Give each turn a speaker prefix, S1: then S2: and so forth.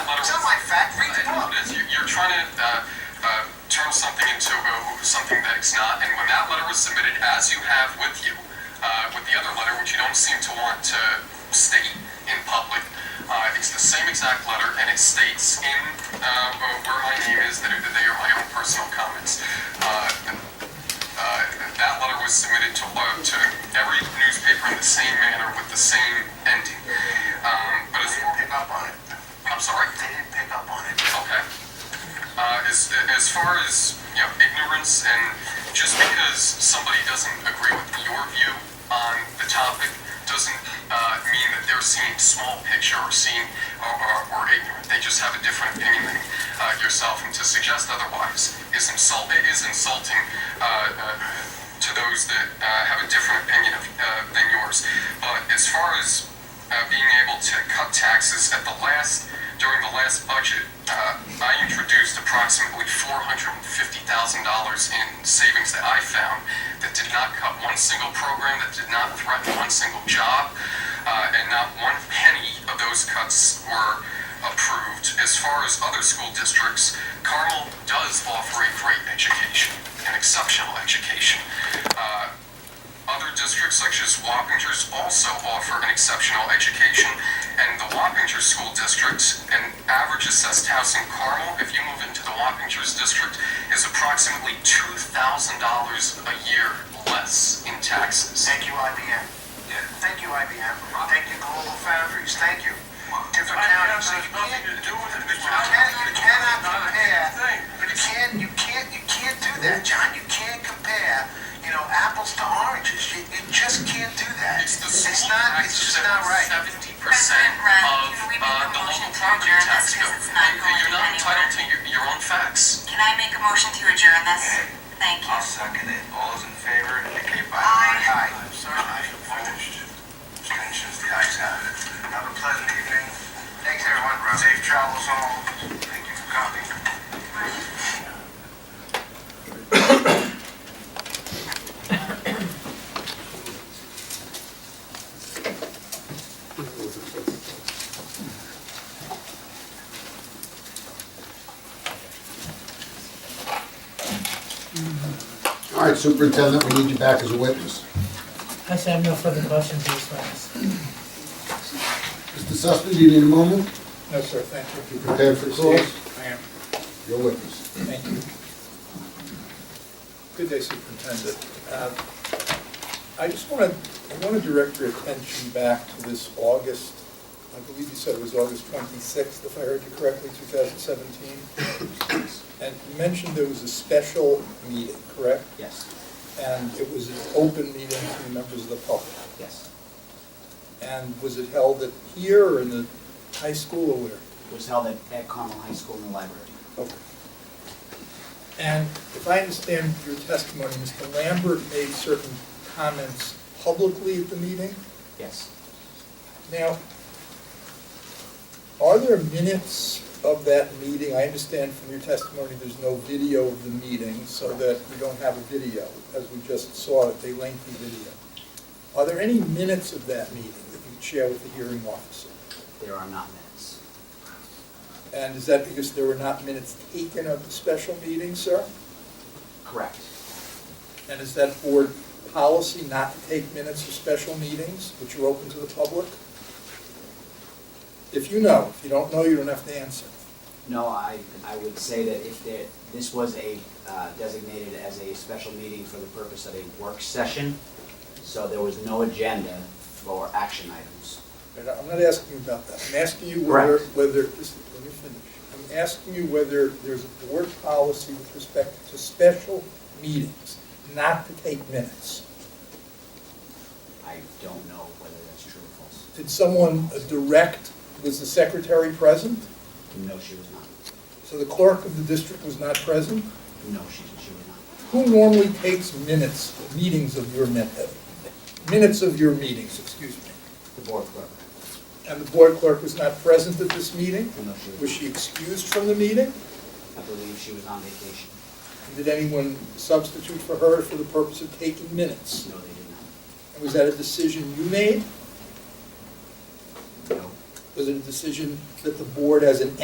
S1: uh, it's not. And when that letter was submitted, as you have with you, uh, with the other letter, which you don't seem to want to state in public, uh, it's the same exact letter, and it states in uh, where my name is that they are my own personal comments. Uh, uh, that letter was submitted to, uh, to every newspaper in the same manner with the same ending. Um, but
S2: They
S1: as,
S2: didn't pick up on it.
S1: I'm sorry.
S2: They didn't pick up on it.
S1: Okay. Uh, as, as far as you know, ignorance and just because somebody doesn't agree with your view on the topic doesn't uh, mean that they're seeing small picture or seeing or, or, or ignorant. They just have a different opinion than uh, yourself, and to suggest otherwise is insult. It is insulting uh, uh, to those that uh, have a different opinion of, uh, than yours. But as far as uh, being able to cut taxes at the last, during the last budget, uh, I introduced approximately $450,000 in savings that I found that did not cut one single program, that did not threaten one single job, uh, and not one penny of those cuts were approved. As far as other school districts, Carmel does offer a great education, an exceptional education. Uh, other districts such as Wappingers also offer an exceptional education, and the Wappinger School District, an average assessed house in Carmel, if you move into the Wappingers District, is approximately two thousand dollars a year less in taxes.
S2: Thank you, IBM. Thank you, IBM. Thank you, Global Foundries. Thank you. Different counties. You can't, you cannot compare. You can't, you can't, you can't do that, John. You can't compare, you know, apples to oranges. You, you just can't do that.
S1: It's the
S2: It's
S1: school
S2: not, it's
S1: taxes
S2: just
S1: that
S2: not right.
S1: seventy percent
S3: President Brown,
S1: of
S3: can we make
S1: uh,
S3: a
S1: the
S3: motion
S1: local
S3: to
S1: property
S3: adjourn
S1: tax
S3: this
S1: bill.
S3: because it's not going
S1: You're not entitled to your, your own facts.
S3: Can I make a motion to adjourn this? Thank you.
S4: I'll second it. All those in favor indicate by aye.
S2: Aye. Aye. Opposed? Abstentions? The ayes have it. Have a pleasant evening. Thanks, everyone. Safe travels home. Thank you for coming.
S5: All right, Superintendent, we need you back as a witness.
S6: I should have no further questions or comments.
S5: Mr. Sussman, do you need a moment?
S6: No, sir, thank
S5: You prepared for close?
S6: I am,
S5: You're a witness.
S6: thank you.
S7: Good day, Superintendent. Uh, I just want to, I want to direct your attention back to this August, I believe you said it was August 26th, if I heard you correctly, 2017. And you mentioned there was a special meeting, correct?
S8: Yes,
S7: And it was an open meeting to the members of the public.
S8: yes.
S7: And was it held at here or in the high school or where?
S8: It was held at, at Carmel High School in the library.
S7: Okay. And if I understand your testimony, Mr. Lambert made certain comments publicly at the meeting.
S8: Yes.
S7: Now, are there minutes of that meeting? I understand from your testimony, there's no video of the meeting, so that we don't have a video, as we just saw, it's a lengthy video. Are there any minutes of that meeting that you could share with the hearing officer?
S8: There are not minutes.
S7: And is that because there were not minutes taken of the special meeting, sir?
S8: Correct.
S7: And is that board policy not to take minutes of special meetings, which are open to the public? If you know, if you don't know, you don't have to answer.
S8: No, I, I would say that if there, this was a, uh, designated as a special meeting for the purpose of a work session, so there was no agenda for action items.
S7: And I'm not asking you about that. I'm asking you whether,
S8: Correct.
S7: whether, just let me finish. I'm asking you whether there's a board policy with respect to special meetings, not to take minutes.
S8: I don't know whether that's true or false.
S7: Did someone direct, was the secretary present?
S8: No, she was not.
S7: So the clerk of the district was not present?
S8: No, she, she was not.
S7: Who normally takes minutes, meetings of your, min- uh, minutes of your meetings, excuse me?
S8: The board clerk.
S7: And the board clerk was not present at this meeting?
S8: No, she was
S7: Was she excused from the meeting?
S8: I believe she was on vacation.
S7: Did anyone substitute for her for the purpose of taking minutes?
S8: No, they
S7: And was that a decision you made?
S8: did not. No.
S7: Was it a decision that the board as an